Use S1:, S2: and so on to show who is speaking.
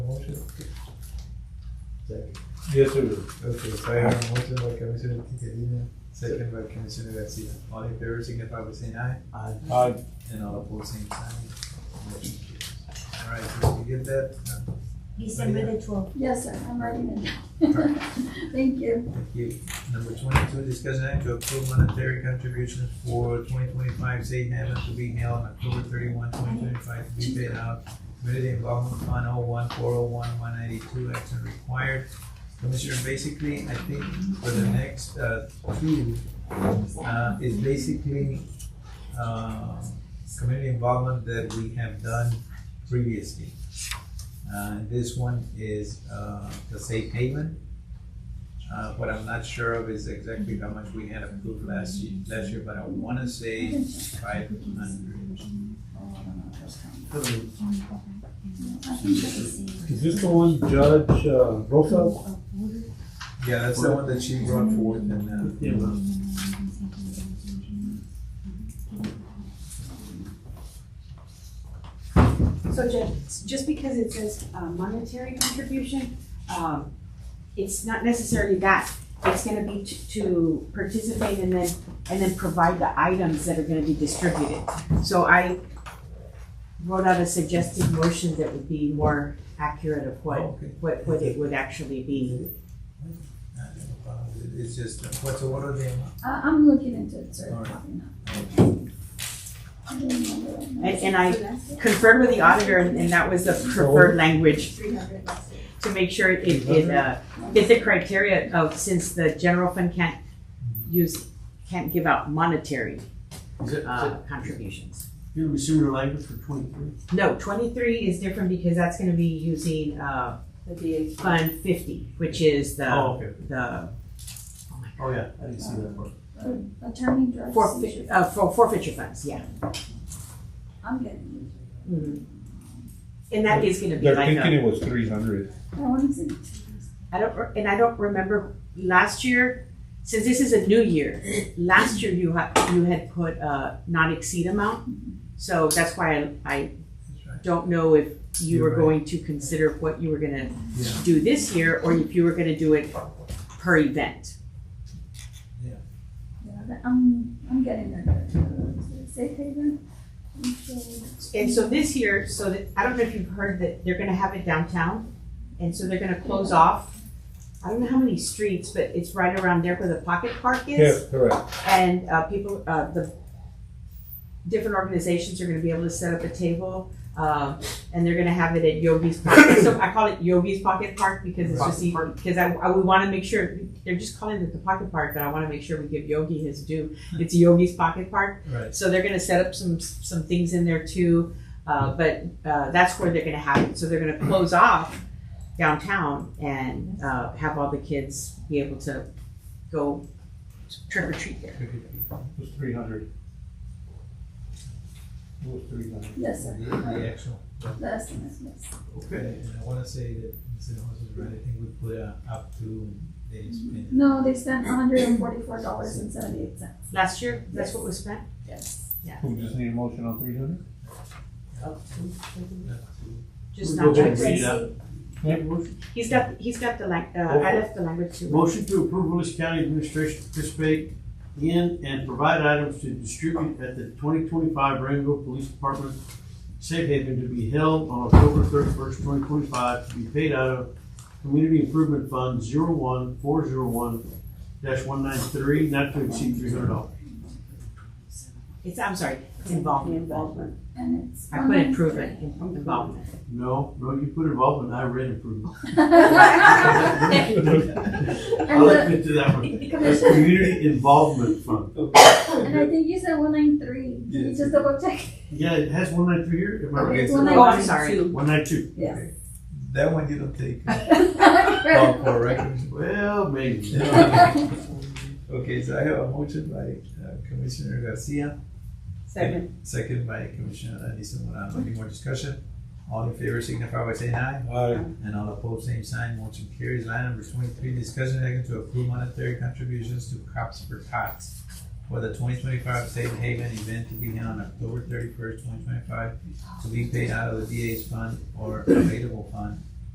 S1: Yes, sir.
S2: Okay, so I have a motion by Commissioner Tinkerina, second by Commissioner Garcia. All in favor signify by saying aye,
S1: Aye.
S2: and all opposed, same sign. Motion carries. All right, so we get that, Uh,
S3: December the twelfth.
S4: Yes, sir, I'm writing it down. Thank you.
S2: thank you. Number twenty-two, discussion act to approve monetary contributions for twenty twenty-five state Hammond to be held on October thirty-one, twenty twenty-five, to be paid out. Community Involvement Fund oh one, four oh one, one ninety-two, action required. Commissioner, basically, I think for the next, uh, two, uh, is basically, uh, community involvement that we have done previously. Uh, this one is, uh, the safe haven. Uh, what I'm not sure of is exactly how much we had approved last year, last year, but I wanna say five hundred. Mm-hmm.
S1: Is this the one Judge uh, Rosas?
S2: Yeah, that's the one that she brought forth and, uh,
S5: So just, just because it says uh, monetary contribution, um, it's not necessarily that. It's gonna be to- to participate and then, and then provide the items that are gonna be distributed. So I wrote out a suggested motion that would be more accurate of what,
S2: okay.
S5: what, what it would actually be.
S2: Uh, It's just, uh, what's, what are the amount?
S4: I, I'm looking into it, sir.
S2: All right.
S5: And, and I conferred with the auditor and and that was the preferred language
S4: Three hundred.
S5: to make sure it, it, uh, It's the criteria of, since the general fund can't use, can't give out monetary
S6: Is it,
S5: uh, contributions.
S6: you're resuming the language for twenty-three?
S5: No, twenty-three is different because that's gonna be using, uh, Fund fifty, which is the,
S6: Oh, okay.
S5: the
S6: Oh, yeah, I didn't see that part.
S4: Attorney Drug
S5: forfeiture, uh, for forfeiture funds, yeah.
S4: I'm getting
S5: Mhm. And that is gonna be
S1: They're
S5: like
S1: thinking
S5: a,
S1: it was three hundred.
S4: it. I want to
S5: I don't, re- and I don't remember, last year, since this is a new year, last year you had, you had put a not exceed amount. So that's why I, I
S2: That's right.
S5: don't know if you
S2: You're
S5: were
S2: right.
S5: going to consider what you were gonna
S2: Yeah.
S5: do this year, or if you were gonna do it per event.
S4: yeah, I'm, I'm getting there. Safe haven? I'm sure-
S5: And so this year, so that, I don't know if you've heard that they're gonna have it downtown, and so they're gonna close off, I don't know how many streets, but it's right around there where the pocket park is.
S1: Yes, correct.
S5: And, uh, people, uh, the different organizations are gonna be able to set up a table, uh, and they're gonna have it at Yogi's Pocket. So I call it Yogi's Pocket Park because it's just, e- because I, I, we wanna make sure, they're just calling it the Pocket Park, but I wanna make sure we give Yogi his due. It's Yogi's Pocket Park.
S2: Right.
S5: So they're gonna set up some, some things in there too, uh, but, uh, that's where they're gonna have it, so they're gonna close off downtown and, uh, have all the kids be able to go trick or treat there.
S1: It was three hundred. It was three hundred.
S4: Yes,
S2: The,
S4: sir.
S2: the actual.
S4: The estimate, yes.
S2: Okay. And I wanna say that, Mr. Holmes is right, I think we put uh, up to, they spent.
S4: No, they spent hundred and forty-four dollars and seventy-eight cents.
S5: Last year, that's what was spent?
S4: Yes.
S1: We just need a motion on three hundred?
S2: up to-
S5: Just
S6: We'll
S5: not,
S6: go back
S5: that.
S6: and read that.
S1: Yeah.
S6: Motion-
S5: he's got, he's got the lang, uh, I left the language too.
S6: Motion to approve Willis County Administration to participate in and provide items to distribute at the twenty twenty-five Rango Police Department Safe Haven to be held on October thirty-first, twenty twenty-five, to be paid out of Community Improvement Fund zero one four zero one dash one nine three, not to exceed three hundred dollars.
S5: It's, I'm sorry, it's involvement. Involvement.
S4: And it's.
S5: I put improvement, in- involvement.
S6: No, no, you put involvement, I read improvement.
S4: And
S6: I'll
S4: the,
S6: admit to that one. That's
S4: Commissioner,
S6: Community Involvement Fund.
S4: and I think you said one nine three. Can you just double check?
S6: Yeah, it has one nine three here, am I right?
S2: Okay, so-
S4: One
S5: Oh,
S4: nine
S5: I'm sorry.
S6: One nine two.
S4: Yes.
S2: That one you don't take.
S4: three.
S2: Oh, correct.
S6: Well, maybe.
S2: Okay, so I have a motion by uh, Commissioner Garcia. Second. Second by Commissioner Alisa Morano. Any more discussion? All in favor signify by saying aye.
S1: Aye.
S2: And all opposed, same sign, motion carries. Line number twenty-three, discussion and action to approve monetary contributions to Cops for Tots for the twenty twenty-five Safe Haven event to be held on October thirty-first, twenty twenty-five, to be paid out of the DA's fund or available fund